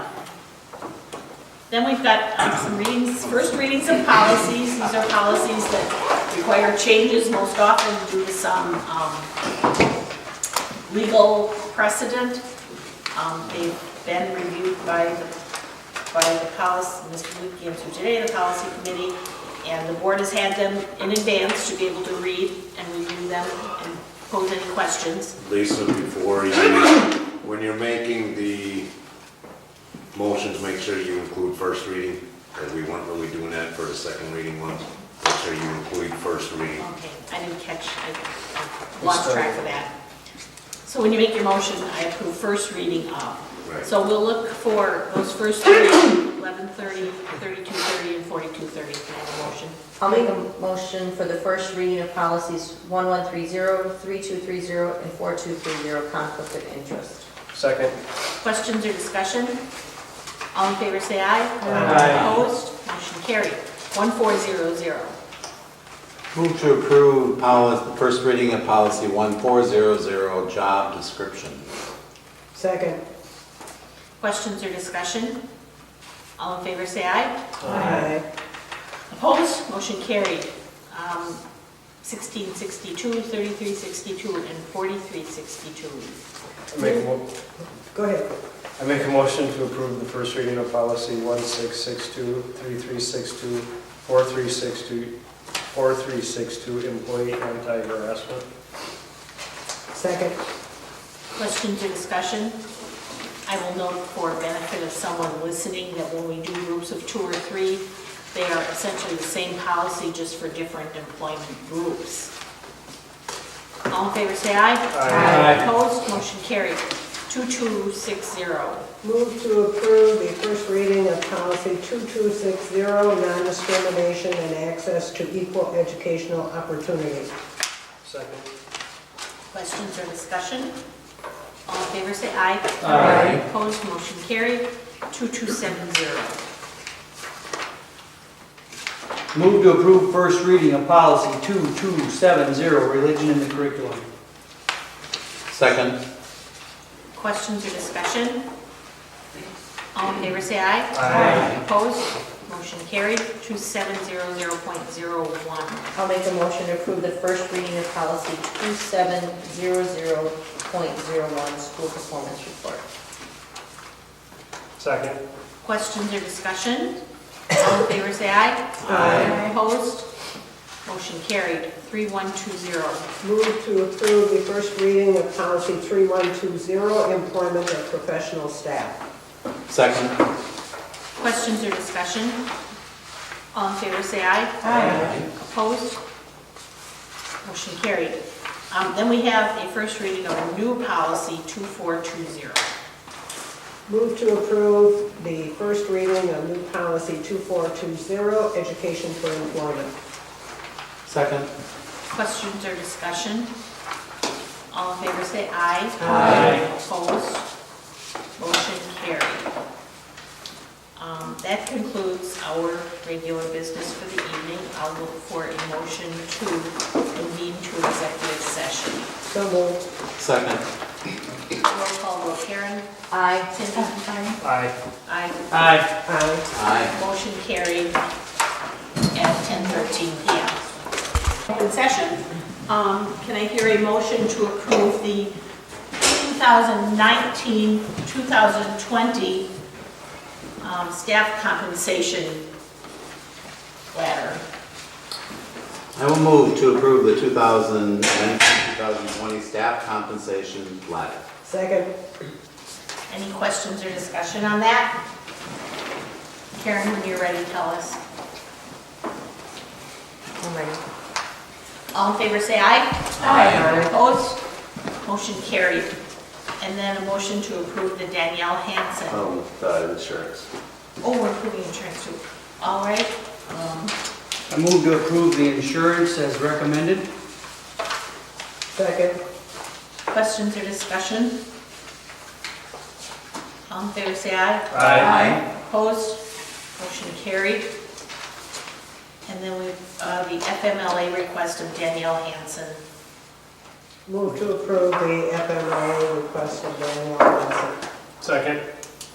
Then we've got um, some readings, first readings of policies. These are policies that require changes most often due to some um, legal precedent. Um, They've been reviewed by the, by the policy, Mr. Luke gave through today, the policy committee, and the board has had them in advance to be able to read and review them and pose any questions. Lisa, before you, when you're making the motions, make sure you include first reading, because we weren't really doing that for the second reading ones. Make sure you include first reading. Okay, I didn't catch, I lost track of that. So when you make your motion, I approve first reading of. Right. So we'll look for those first three, 1130, 3230, and 4230, can I have a motion? I'll make a motion for the first reading of policies 1130, 3230, and 4230, conflict of interest. Second. Questions or discussion? All in favor, say aye. Aye. Opposed, motion carried. 1400. Move to approve policy, the first reading of policy 1400, job description. Second. Questions or discussion? All in favor, say aye. Aye. Opposed, motion carried. Um, 1662, 3362, and 4362. I make a mo- Go ahead. I make a motion to approve the first reading of policy 1662, 3362, 4362, 4362, employee anti-harassment. Second. Questions or discussion? I will note for benefit of someone listening that when we do groups of two or three, they are essentially the same policy, just for different employment groups. All in favor, say aye. Aye. Aye. Opposed, motion carried. 2260. Move to approve the first reading of policy 2260, non-discrimination and access to equal educational opportunity. Second. Questions or discussion? All in favor, say aye. Aye. Opposed, motion carried. 2270. Move to approve first reading of policy 2270, religion in the curriculum. Second, Questions or discussion? All in favor, say aye. Aye. Opposed, motion carried. 2700.01. I'll make a motion to approve the first reading of policy 2700.01, school performance report. Second. Questions or discussion? All in favor, say aye. Aye. Opposed, motion carried. 3120. Move to approve the first reading of policy 3120, employment of professional staff. second, Questions or discussion? All in favor, say aye. Aye. Opposed? Motion carried. Um, Then we have a first reading of a new policy, 2420. Move to approve the first reading of new policy 2420, education for employment. second, Questions or discussion? All in favor, say aye. Aye. Opposed? Motion carried. Um, That concludes our regular business for the evening. I'll look for a motion to convene to executive session. So moved. second. Roll call vote, Karen? Aye. Cindy? Aye. Aye. Aye. Aye. Aye. Motion carried at 10:13 PM. Open session, Um, can I hear a motion to approve the 2019-2020 um, staff compensation ladder? I will move to approve the 2019-2020 staff compensation ladder. Second. Any questions or discussion on that? Karen, when you're ready, tell us. I'm ready. All in favor, say aye. Aye. Opposed? Motion carried. And then a motion to approve the Danielle Oh. Hanson. Um, uh, insurance. Oh, we're approving insurance too. All right. um, I move to approve the insurance as recommended. Second. Questions or discussion? All in favor, say aye. Aye. Opposed? Motion carried. And then we, uh, the FMLA request of Danielle Hanson. Move to approve the FMLA request of Danielle Johnson. Second.